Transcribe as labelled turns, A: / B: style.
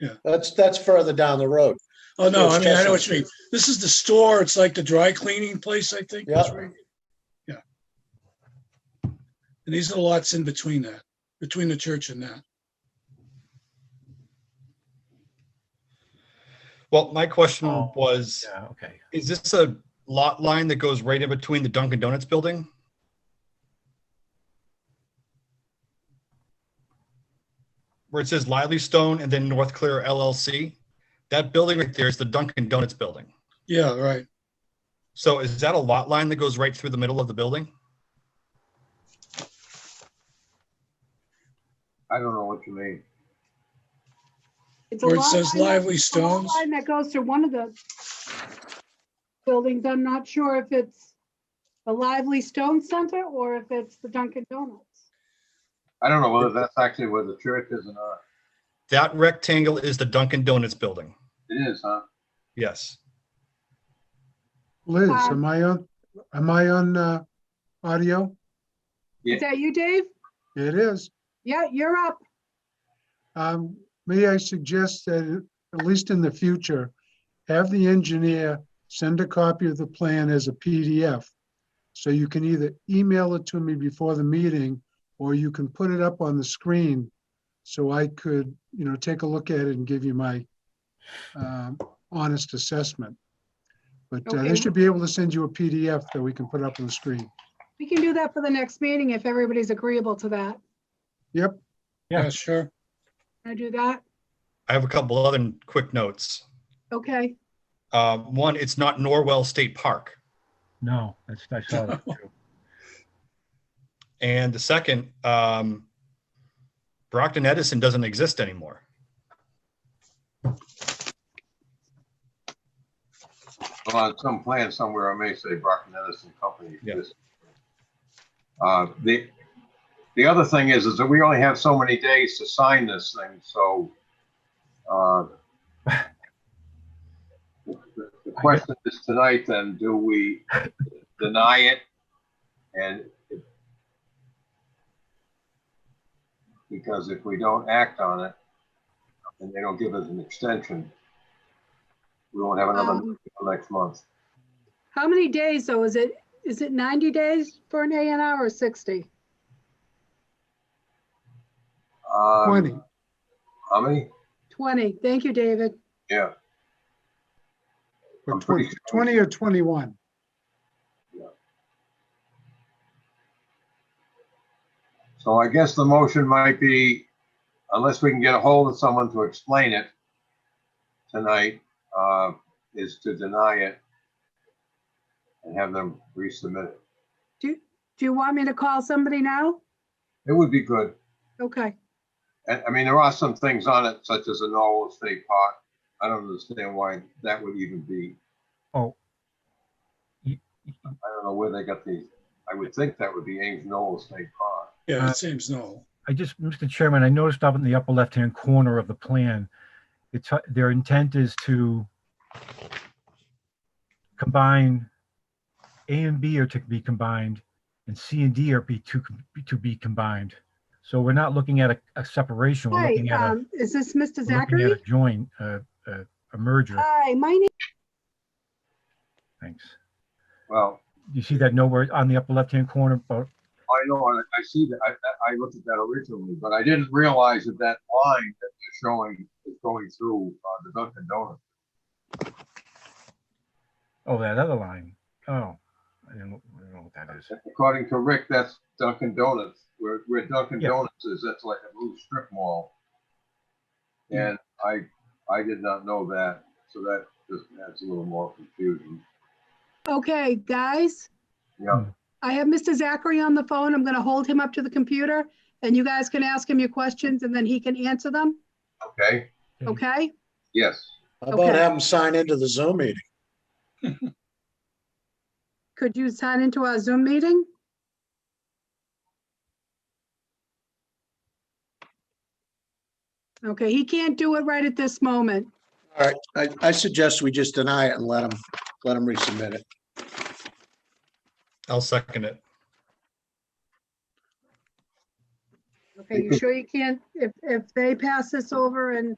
A: Yeah.
B: That's, that's further down the road.
A: Oh, no, I mean, I know what you
B: Chestnut.
A: mean. This is the store. It's like the dry cleaning place, I think. that's
B: Yeah.
A: right. Yeah. And these are the lots in between that, between the church and that.
C: Well, my question
D: Oh,
C: was,
D: Yeah, okay.
C: is this a lot line that goes right in between the Dunkin' Donuts building? Where it says Lively Stone and then North Clear LLC? That building right there is the Dunkin' Donuts building.
A: Yeah, right.
C: So is that a lot line that goes right through the middle of the building?
E: I don't know what you mean.
F: It's a
A: Where it
F: lot
A: says
F: line that-
A: Lively
F: it's a lot
A: Stones.
F: Line that goes through one of the buildings. I'm not sure if it's the Lively Stone Center or if it's the Dunkin' Donuts.
E: I don't know whether that's actually where the church is or not.
C: That rectangle is the Dunkin' Donuts building.
E: It is, huh?
C: Yes.
G: Liz,
F: Hi.
G: am I on, am I on uh, audio?
E: Yeah.
F: Is that you, Dave?
G: It is.
F: Yeah, you're up.
G: Um, May I suggest that, at least in the future, have the engineer send a copy of the plan as a PDF? So you can either email it to me before the meeting, or you can put it up on the screen so I could, you know, take a look at it and give you my um, honest assessment. But uh,
F: Okay.
G: they should be able to send you a PDF that we can put up on the screen.
F: We can do that for the next meeting if everybody's agreeable to that.
D: Yeah.
A: Yeah, sure.
F: Can I do that?
C: I have a couple other quick notes.
F: Okay.
C: Um, one, it's not Norwell State Park.
D: No, that's, I saw that too.
C: And the second, um, Brockton Edison doesn't exist anymore.
E: Well, on some plan somewhere, I may say Brockton Edison Company.
C: Yeah.
E: exists. Uh, the, the other thing is, is that we only have so many days to sign this thing, so, uh, the the question is tonight, then, do we deny it? And if- because if we don't act on it, and they don't give us an extension, we won't have another
F: Um,
E: next month.
F: How many days though? Is it, is it 90 days for an A and R or 60?
E: Um,
G: 20.
E: How many?
F: 20. Thank you, David.
E: Yeah,
G: Or
E: I'm pretty sure.
G: 20 20 or 21?
E: so I guess the motion might be, unless we can get a hold of someone to explain it tonight, uh, is to deny it and have them resubmit it.
F: Do you want me to call somebody now?
E: It would be good.
F: Okay.
E: And, I mean, there are some things on it, such as a Norwell State Park. I don't understand why that would even be,
D: Oh,
E: I don't know where they got these. I would think that would be Ames Norwell State Park.
A: Yeah,
D: Uh,
A: it seems no.
D: I just, Mr. Chairman, I noticed up in the upper left-hand corner of the plan, it's, uh, their intent is to combine A and B are to be combined and C and D are be to, to be combined. So we're not looking at a, a separation, we're
F: Hi,
D: looking at a,
F: um, is this Mr.
D: we're looking at
F: Zachary?
D: a joint, uh, uh, a merger.
F: Hi, my name, Uh,
D: Thanks.
E: Well,
D: You see that nowhere on the upper left-hand corner, but
E: I know, I, I see that, I, I- I looked at that originally, but I didn't realize that that line that they're showing is going through, uh, the Dunkin' Donuts.
D: Oh, that other line. Oh, I didn't, I don't know what that is.
E: According to Rick, that's Dunkin' Donuts, where, where Dunkin'
D: Yeah.
E: Donuts is, that's like a little strip mall. And I, I did not know that, so that just adds a little more confusion.
F: okay, guys,
E: Yeah,
F: I have Mr. Zachary on the phone. I'm going to hold him up to the computer and you guys can ask him your questions and then he can answer them,
E: okay,
F: okay?
E: yes.
B: How about
F: Okay.
B: have them sign into the Zoom meeting?
F: Could you sign into our Zoom meeting? Okay, he can't do it right at this moment.
B: All right, I, I suggest we just deny it and let them, let them resubmit it.
C: I'll second it.
F: Okay, you sure you can't? If, if they pass this over and